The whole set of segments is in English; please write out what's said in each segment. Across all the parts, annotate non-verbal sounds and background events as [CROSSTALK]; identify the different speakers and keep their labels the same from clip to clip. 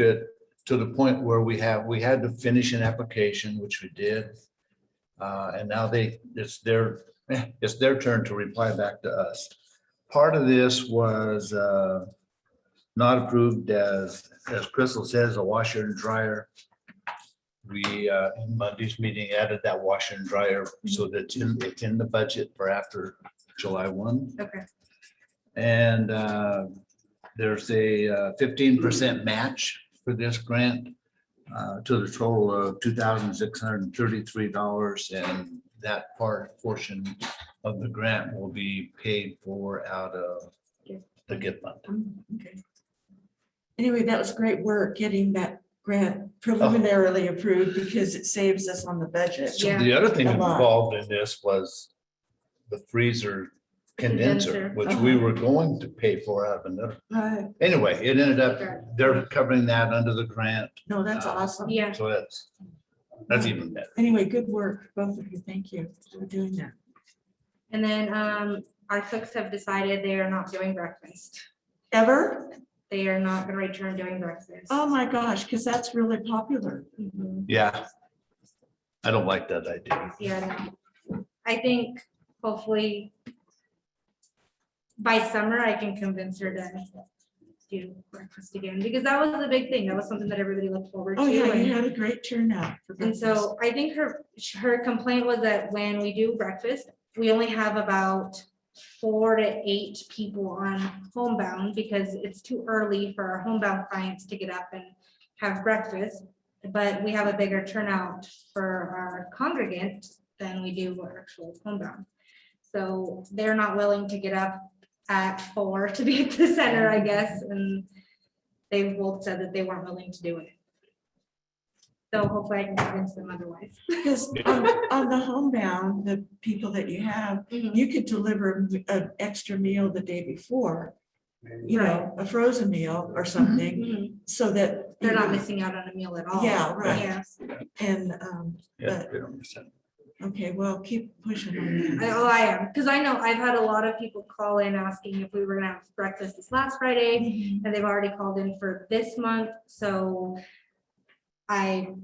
Speaker 1: that to the point where we have, we had to finish an application, which we did. Uh, and now they, it's their, [LAUGHS] it's their turn to reply back to us. Part of this was, uh, not approved as, as Crystal says, a washer and dryer. We, uh, in Monday's meeting added that washer and dryer so that it's in, it's in the budget for after July one.
Speaker 2: Okay.
Speaker 1: And, uh, there's a uh, fifteen percent match for this grant uh, to the total of two thousand six hundred and thirty-three dollars, and that part, portion of the grant will be paid for out of the GIF fund.
Speaker 2: Um, okay. Anyway, that was great work getting that
Speaker 3: Oh.
Speaker 2: grant preliminarily approved because it saves us on the budget.
Speaker 1: So
Speaker 3: Yeah.
Speaker 1: the other thing
Speaker 2: A lot.
Speaker 1: involved in this was the freezer condenser,
Speaker 3: Condenser. Uh-huh.
Speaker 1: which we were going to pay for out of another.
Speaker 2: Uh,
Speaker 1: Anyway, it ended up, they're covering that under the grant,
Speaker 2: No, that's
Speaker 1: Uh,
Speaker 2: awesome.
Speaker 3: Yeah,
Speaker 1: so that's, that's even better.
Speaker 2: Anyway, good work, both of you. Thank you for doing that.
Speaker 3: and then um, our cooks have decided they are not doing breakfast.
Speaker 2: Ever?
Speaker 3: They are not gonna return doing breakfast.
Speaker 2: Oh, my gosh, because that's really popular.
Speaker 3: Mhm.
Speaker 1: Yeah. I don't like that idea.
Speaker 3: Yeah, no. I think hopefully by summer I can convince her to do breakfast again, because that was the big thing. That was something that everybody looked forward to.
Speaker 2: Oh, yeah,
Speaker 3: and-
Speaker 2: you had a great turnout. for
Speaker 3: And
Speaker 2: breakfast.
Speaker 3: so I think her, her complaint was that when we do breakfast, we only have about four to eight people on homebound because it's too early for our homebound clients to get up and have breakfast. But we have a bigger turnout for our congregant than we do our actual homebound. So they're not willing to get up at four to be at the center, I guess, and they both said that they weren't willing to do it. So hopefully I can convince them otherwise.
Speaker 2: Because
Speaker 3: [LAUGHS]
Speaker 2: on on the homebound, the people that you have, you could deliver an extra meal the day before. You know, a frozen meal or something,
Speaker 3: Mhm.
Speaker 2: so that.
Speaker 3: They're not missing out on a meal at all.
Speaker 2: Mm-hmm. Yeah, right.
Speaker 3: Yeah.
Speaker 2: And, um,
Speaker 1: Yeah, we don't understand.
Speaker 2: okay, well, keep pushing on
Speaker 3: I-
Speaker 2: that.
Speaker 3: Oh, I am, because I know I've had a lot of people call in asking if we were gonna have breakfast this last Friday,
Speaker 2: Mhm.
Speaker 3: and they've already called in for this month, so I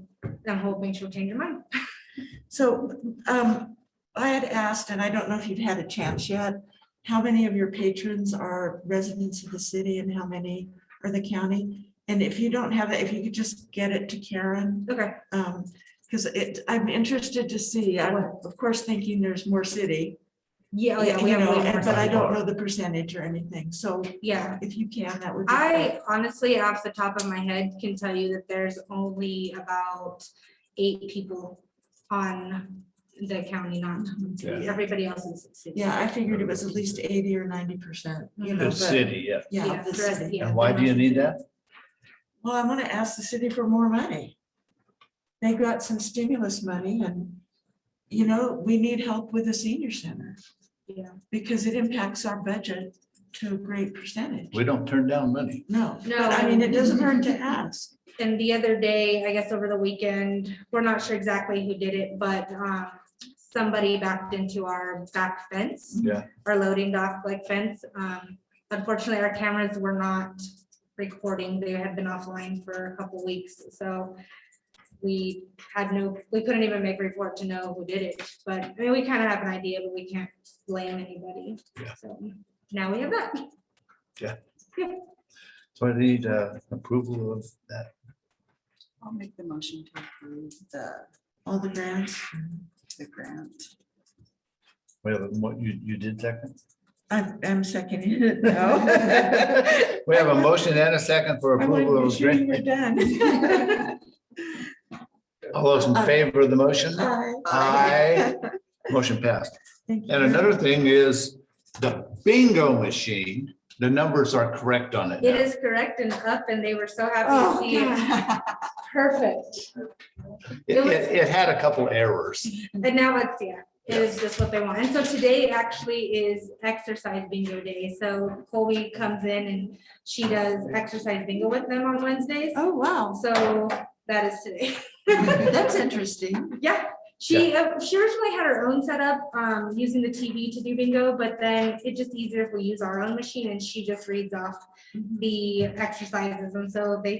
Speaker 3: am hoping she'll change her mind.
Speaker 2: So, um, I had asked, and I don't know if you've had a chance yet, how many of your patrons are residents of the city and how many are the county? And if you don't have it, if you could just get it to Karen,
Speaker 3: Okay,
Speaker 2: Um, because it, I'm interested to see, I'm of course thinking there's more city.
Speaker 3: yeah, oh, yeah, we
Speaker 2: You
Speaker 3: have.
Speaker 2: know,
Speaker 3: way more
Speaker 2: and- but I
Speaker 3: stuff.
Speaker 2: don't know the percentage or anything, so.
Speaker 3: Yeah,
Speaker 2: If you can, that would. be great.
Speaker 3: I honestly, off the top of my head, can tell you that there's only about eight people on the county, not
Speaker 1: Yeah.
Speaker 3: everybody else is. city.
Speaker 2: Yeah, I figured it was at least eighty or ninety percent, you know.
Speaker 1: The
Speaker 2: but-
Speaker 1: city, yeah.
Speaker 2: Yeah, the
Speaker 3: the rest-
Speaker 2: city.
Speaker 3: yeah,
Speaker 1: And why
Speaker 3: the
Speaker 1: do you
Speaker 3: rest-
Speaker 1: need that?
Speaker 2: Well, I'm gonna ask the city for more money. They got some stimulus money and, you know, we need help with the senior center
Speaker 3: Yeah,
Speaker 2: because it impacts our budget to a great percentage.
Speaker 1: We don't turn down money.
Speaker 2: No,
Speaker 3: No.
Speaker 2: but I mean, it doesn't
Speaker 4: [LAUGHS]
Speaker 2: hurt to ask.
Speaker 3: and the other day, I guess over the weekend, we're not sure exactly who did it, but, um, somebody backed into our back fence.
Speaker 1: Yeah.
Speaker 3: Our loading dock like fence, um, unfortunately, our cameras were not recording, they had been offline for a couple weeks, so. We had no, we couldn't even make a report to know who did it, but, I mean, we kind of have an idea, but we can't blame anybody,
Speaker 1: Yeah.
Speaker 3: so, now we have that.
Speaker 1: So I need uh, approval of that.
Speaker 4: I'll make the motion to approve the,
Speaker 2: All the grants.
Speaker 4: the grant.
Speaker 1: We have, a mo- you, you did second?
Speaker 2: I'm, I'm seconding
Speaker 4: [LAUGHS]
Speaker 2: it now.
Speaker 1: We have a motion and a second for
Speaker 2: I wanted
Speaker 1: approval
Speaker 2: to be
Speaker 1: of
Speaker 2: sure you
Speaker 1: grant.
Speaker 2: were
Speaker 4: [LAUGHS]
Speaker 2: done.
Speaker 1: All those in favor of the motion?
Speaker 2: Aye.
Speaker 1: Aye. Motion passed.
Speaker 2: Thank you.
Speaker 1: And another thing is the bingo machine, the numbers are correct on it.
Speaker 3: It
Speaker 1: now.
Speaker 3: is correct and up, and they were so happy to
Speaker 2: Oh,
Speaker 3: see it.
Speaker 2: God.
Speaker 3: Perfect.
Speaker 1: It, it- it had a couple errors.
Speaker 3: And now it's, yeah, it is just what they want. And so today actually is exercise bingo day. So Colby comes in and she does exercise bingo with them on Wednesdays.
Speaker 2: Oh, wow.
Speaker 3: So that is today. [LAUGHS]
Speaker 2: That's interesting.
Speaker 3: Yeah, she, uh, she originally had her own setup, um, using the TV to do bingo, but then it's Mm-hmm. just easier if we use our own machine and she just reads off the exercises. And so they